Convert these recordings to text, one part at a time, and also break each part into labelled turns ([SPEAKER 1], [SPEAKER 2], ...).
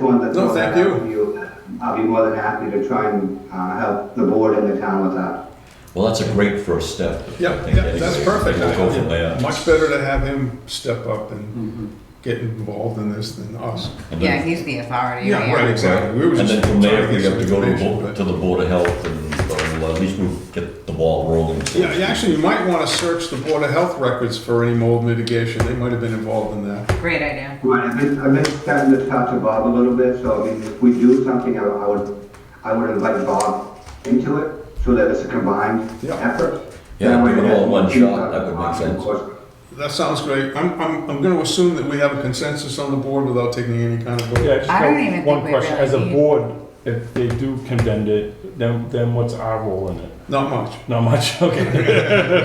[SPEAKER 1] wanted to.
[SPEAKER 2] No,
[SPEAKER 1] throw that
[SPEAKER 2] thank you.
[SPEAKER 1] out to I'll be more than happy to try and uh, help the board and the town with that.
[SPEAKER 3] Well, that's a great first step. I
[SPEAKER 2] Yeah,
[SPEAKER 3] think
[SPEAKER 2] yeah, that's perfect.
[SPEAKER 3] We'll go from there.
[SPEAKER 2] Much better to have him step up and get involved in this than us.
[SPEAKER 3] And
[SPEAKER 4] Yeah,
[SPEAKER 3] then-
[SPEAKER 4] he's the authority.
[SPEAKER 2] Yeah, right, exactly. We were
[SPEAKER 3] And then
[SPEAKER 2] just
[SPEAKER 3] from there,
[SPEAKER 2] trying to
[SPEAKER 3] we
[SPEAKER 2] get
[SPEAKER 3] have to go
[SPEAKER 2] some
[SPEAKER 3] to the
[SPEAKER 2] information,
[SPEAKER 3] Bo-
[SPEAKER 2] but-
[SPEAKER 3] to the Board of Health and, blah, blah, at least we'll get the ball rolling. so-
[SPEAKER 2] Yeah, yeah, actually, you might want to search the Board of Health records for any mold mitigation. They might have been involved in that.
[SPEAKER 4] Great idea.
[SPEAKER 1] Right, I've been, I've been starting to talk to Bob a little bit, so I mean, if we do something, I I would, I would invite Bob into it, so that it's a combined
[SPEAKER 2] Yeah.
[SPEAKER 1] effort.
[SPEAKER 3] Yeah,
[SPEAKER 1] That way
[SPEAKER 3] do it
[SPEAKER 1] that
[SPEAKER 3] all in one
[SPEAKER 1] we
[SPEAKER 3] shot,
[SPEAKER 1] can,
[SPEAKER 3] that would make
[SPEAKER 1] uh, of
[SPEAKER 3] sense.
[SPEAKER 1] course,
[SPEAKER 2] That sounds great. I'm, I'm, I'm going to assume that we have a consensus on the board without taking any kind of vote.
[SPEAKER 5] Yeah, just
[SPEAKER 4] I
[SPEAKER 5] got
[SPEAKER 4] don't even think
[SPEAKER 5] one
[SPEAKER 4] we
[SPEAKER 5] question.
[SPEAKER 4] really
[SPEAKER 5] As a
[SPEAKER 4] need-
[SPEAKER 5] board, if they do condemn it, then, then what's our role in it?
[SPEAKER 2] Not much.
[SPEAKER 5] Not much, okay.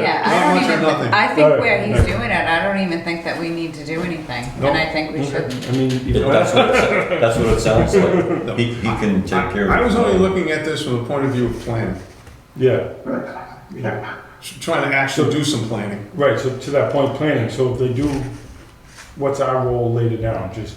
[SPEAKER 4] Yeah, I
[SPEAKER 2] Not
[SPEAKER 4] don't
[SPEAKER 2] much or
[SPEAKER 4] even,
[SPEAKER 2] nothing.
[SPEAKER 4] I think
[SPEAKER 5] Right,
[SPEAKER 4] where he's
[SPEAKER 5] right.
[SPEAKER 4] doing it, I don't even think that we need to do anything.
[SPEAKER 2] No.
[SPEAKER 4] And I think we
[SPEAKER 5] I
[SPEAKER 4] shouldn't.
[SPEAKER 5] mean,
[SPEAKER 3] Yeah,
[SPEAKER 5] you
[SPEAKER 3] That's
[SPEAKER 5] know,
[SPEAKER 3] what, it- that's what it sounds like. He, he can take care of it.
[SPEAKER 2] I was only looking at this from the point of view of planning,
[SPEAKER 5] yeah,
[SPEAKER 1] right. Yeah.
[SPEAKER 2] trying to actually do some planning.
[SPEAKER 5] right, so to that point, planning, so if they do, what's our role later down? Just,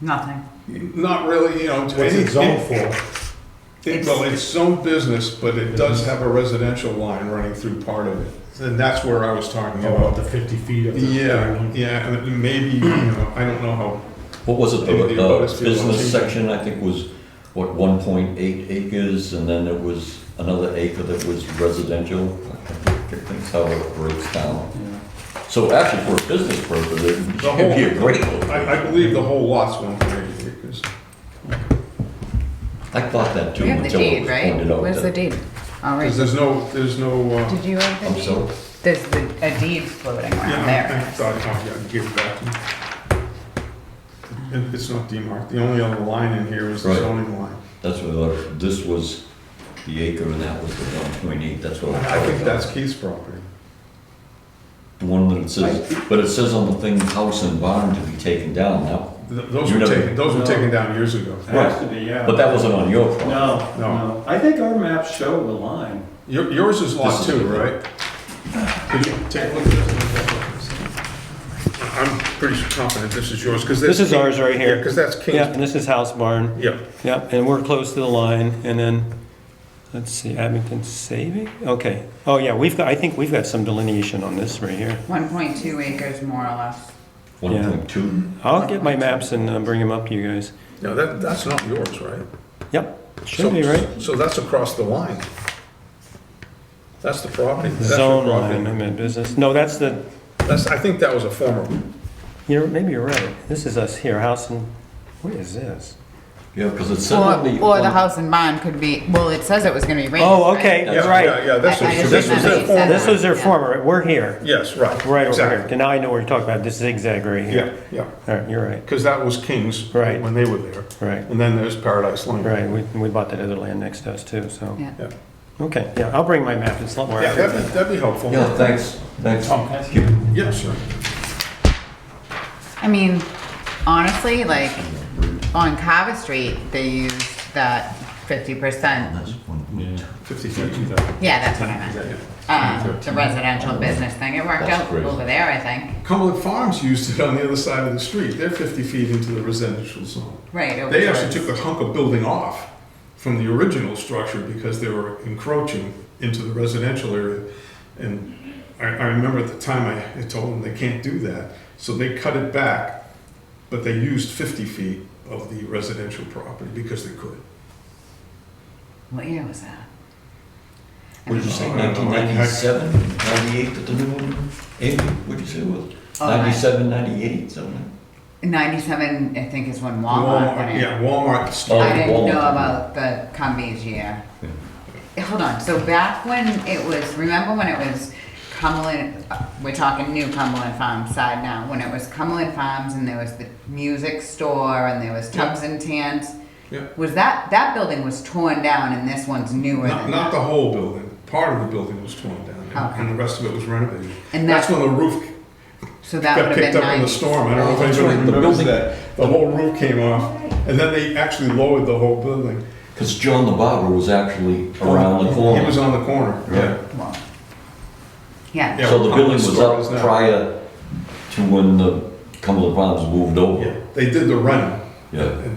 [SPEAKER 4] Nothing.
[SPEAKER 2] Not really, you know.
[SPEAKER 5] what's
[SPEAKER 2] any-
[SPEAKER 5] it zoned for?
[SPEAKER 2] It,
[SPEAKER 4] It's-
[SPEAKER 2] well, it's zone business, but it does have a residential line running through part of it. And that's where I was talking
[SPEAKER 5] About
[SPEAKER 2] about.
[SPEAKER 5] the fifty feet of the.
[SPEAKER 2] Yeah, yeah, and maybe, you know, I don't know how,
[SPEAKER 3] What was it, the,
[SPEAKER 2] Maybe the bonus
[SPEAKER 3] the
[SPEAKER 2] fee
[SPEAKER 3] business
[SPEAKER 2] launching.
[SPEAKER 3] section, I think was, what, one point eight acres, and then there was another acre that was residential? I think that's how it breaks down. So actually, for a business purpose, it'd
[SPEAKER 2] The whole-
[SPEAKER 3] be a great,
[SPEAKER 2] I, I believe the whole lot's one point eight acres.
[SPEAKER 3] I thought that too.
[SPEAKER 4] We have the
[SPEAKER 3] until it
[SPEAKER 4] deed,
[SPEAKER 3] was
[SPEAKER 4] right?
[SPEAKER 3] pointed out
[SPEAKER 4] Where's the
[SPEAKER 3] that-
[SPEAKER 4] deed? All right.
[SPEAKER 2] Because there's no, there's no, uh,
[SPEAKER 4] Did you have the
[SPEAKER 3] I'm
[SPEAKER 4] deed?
[SPEAKER 3] sorry?
[SPEAKER 4] There's the, a deed floating around
[SPEAKER 2] yeah, I- I
[SPEAKER 4] there.
[SPEAKER 2] thought, oh, yeah, I'd give it back to you. It- It's not demarked. The only other line in here is the
[SPEAKER 3] Right.
[SPEAKER 2] zoning line.
[SPEAKER 3] That's what, I thought. this was the acre and that was the one point eight, that's what.
[SPEAKER 2] I
[SPEAKER 3] thought
[SPEAKER 2] think
[SPEAKER 3] about.
[SPEAKER 2] that's Keith's property.
[SPEAKER 3] The one that it says, but it says on the thing, house and barn to be taken down now,
[SPEAKER 2] Th- Those
[SPEAKER 3] You
[SPEAKER 2] were
[SPEAKER 3] never-
[SPEAKER 2] taken, those were
[SPEAKER 6] No.
[SPEAKER 2] taken down years ago.
[SPEAKER 6] It Has to be, yeah.
[SPEAKER 3] but that wasn't on your property.
[SPEAKER 6] No,
[SPEAKER 2] No.
[SPEAKER 6] no. I think our maps show the line.
[SPEAKER 2] Your- Yours is lot
[SPEAKER 3] This is-
[SPEAKER 2] two, right? Could you take a look at this? I'm pretty confident this is yours, because
[SPEAKER 6] This is ours right here.
[SPEAKER 2] Because that's
[SPEAKER 6] Yeah,
[SPEAKER 2] King's,
[SPEAKER 6] and this is House Barn.
[SPEAKER 2] yeah.
[SPEAKER 6] Yep, and we're close to the line, and then, let's see, Abington Saving? Okay. Oh, yeah, we've got, I think we've got some delineation on this right here.
[SPEAKER 4] One point two acres more or less.
[SPEAKER 3] One point two,
[SPEAKER 6] I'll get my maps and uh, bring them up to you guys.
[SPEAKER 2] No, that, that's not yours, right?
[SPEAKER 6] Yep,
[SPEAKER 2] So-
[SPEAKER 6] should be, right?
[SPEAKER 2] So that's across the line. That's the property. That's your
[SPEAKER 6] Zone
[SPEAKER 2] property.
[SPEAKER 6] line, I meant business. No, that's the,
[SPEAKER 2] That's, I think that was a former,
[SPEAKER 6] you're, maybe you're right. This is us here, House and, what is this?
[SPEAKER 3] yeah, because it said
[SPEAKER 4] Or,
[SPEAKER 3] on the.
[SPEAKER 4] or the
[SPEAKER 3] on-
[SPEAKER 4] house and barn could be, well, it says it was gonna be raised.
[SPEAKER 6] Oh,
[SPEAKER 4] right?
[SPEAKER 6] okay,
[SPEAKER 2] yeah, yeah,
[SPEAKER 6] right.
[SPEAKER 2] yeah, this
[SPEAKER 4] I- I
[SPEAKER 2] was,
[SPEAKER 4] just
[SPEAKER 2] this was
[SPEAKER 4] remember
[SPEAKER 2] their
[SPEAKER 4] you said
[SPEAKER 2] former.
[SPEAKER 4] that.
[SPEAKER 6] This was their
[SPEAKER 4] Yeah.
[SPEAKER 6] former, we're here.
[SPEAKER 2] Yes, right.
[SPEAKER 6] Right over here.
[SPEAKER 2] Exactly.
[SPEAKER 6] And now I know what you're talking about, this zigzag right
[SPEAKER 2] Yeah,
[SPEAKER 6] here.
[SPEAKER 2] yeah,
[SPEAKER 6] All right, you're right,
[SPEAKER 2] because that was King's.
[SPEAKER 6] Right.
[SPEAKER 2] When they were there.
[SPEAKER 6] right,
[SPEAKER 2] And then there's Paradise Lane.
[SPEAKER 6] right. We, we bought that other land next to us too, so.
[SPEAKER 4] Yeah.
[SPEAKER 2] Yeah,
[SPEAKER 6] Okay, yeah, I'll bring my map, it's a lot more
[SPEAKER 2] Yeah,
[SPEAKER 6] accurate.
[SPEAKER 2] that'd be, that'd be helpful.
[SPEAKER 3] Yeah, thanks, thanks.
[SPEAKER 2] Oh.
[SPEAKER 3] Keep-
[SPEAKER 2] Yeah, sure.
[SPEAKER 4] I mean, honestly, like, on Carver Street, they used that fifty percent.
[SPEAKER 3] That's one point two.
[SPEAKER 2] Fifty feet.
[SPEAKER 4] Yeah, that's what I meant. Uh, the residential business thing, it worked
[SPEAKER 3] That's
[SPEAKER 4] out
[SPEAKER 3] crazy.
[SPEAKER 4] over there, I think.
[SPEAKER 2] Cumberland Farms used it on the other side of the street. They're fifty feet into the residential zone.
[SPEAKER 4] Right. over
[SPEAKER 2] They
[SPEAKER 4] there.
[SPEAKER 2] actually took a hunk of building off from the original structure because they were encroaching into the residential area. And I, I remember at the time I had told them they can't do that, so they cut it back, but they used fifty feet of the residential property because they could.
[SPEAKER 4] What year was that?
[SPEAKER 3] What did you say,
[SPEAKER 2] I don't know.
[SPEAKER 3] nineteen ninety-seven, ninety-eight, that the new one, eight, what'd you say it was?
[SPEAKER 4] Oh, I-
[SPEAKER 3] Ninety-seven, ninety-eight, something.
[SPEAKER 4] Ninety-seven, I think, is when Walmart went in.
[SPEAKER 2] Yeah, Walmart
[SPEAKER 3] Oh,
[SPEAKER 4] I didn't know
[SPEAKER 3] Walmart.
[SPEAKER 4] about the Cumbies year. Hold on, so back when it was, remember when it was Cumberland, uh, we're talking new Cumberland Farms side now, when it was Cumberland Farms and there was the music store and there was Tubbs and Tans?
[SPEAKER 2] Yeah.
[SPEAKER 4] Was that, that building was torn down and this one's newer
[SPEAKER 2] Not,
[SPEAKER 4] than
[SPEAKER 2] not
[SPEAKER 4] that?
[SPEAKER 2] the whole building, part of the building was torn down, and- and the rest of it was renovated.
[SPEAKER 4] And
[SPEAKER 2] That's
[SPEAKER 4] that-
[SPEAKER 2] when the roof
[SPEAKER 4] So
[SPEAKER 2] got
[SPEAKER 4] that would have
[SPEAKER 2] picked
[SPEAKER 4] been
[SPEAKER 2] up in the
[SPEAKER 4] nice.
[SPEAKER 2] storm, I don't know if
[SPEAKER 3] That's
[SPEAKER 2] anybody
[SPEAKER 3] right, the
[SPEAKER 2] remembers
[SPEAKER 3] building-
[SPEAKER 2] that. The whole roof came off, and then they actually lowered the whole building.
[SPEAKER 3] Because John the barber was actually around the
[SPEAKER 2] He was
[SPEAKER 3] corner.
[SPEAKER 2] on the corner, yeah.
[SPEAKER 4] Well, Yeah.
[SPEAKER 2] Yeah.
[SPEAKER 3] So the building was
[SPEAKER 2] Store is
[SPEAKER 3] up
[SPEAKER 2] now-
[SPEAKER 3] prior to when the Cumberland Farms moved
[SPEAKER 2] Yeah,
[SPEAKER 3] over.
[SPEAKER 2] They did the run,
[SPEAKER 3] Yeah,
[SPEAKER 2] and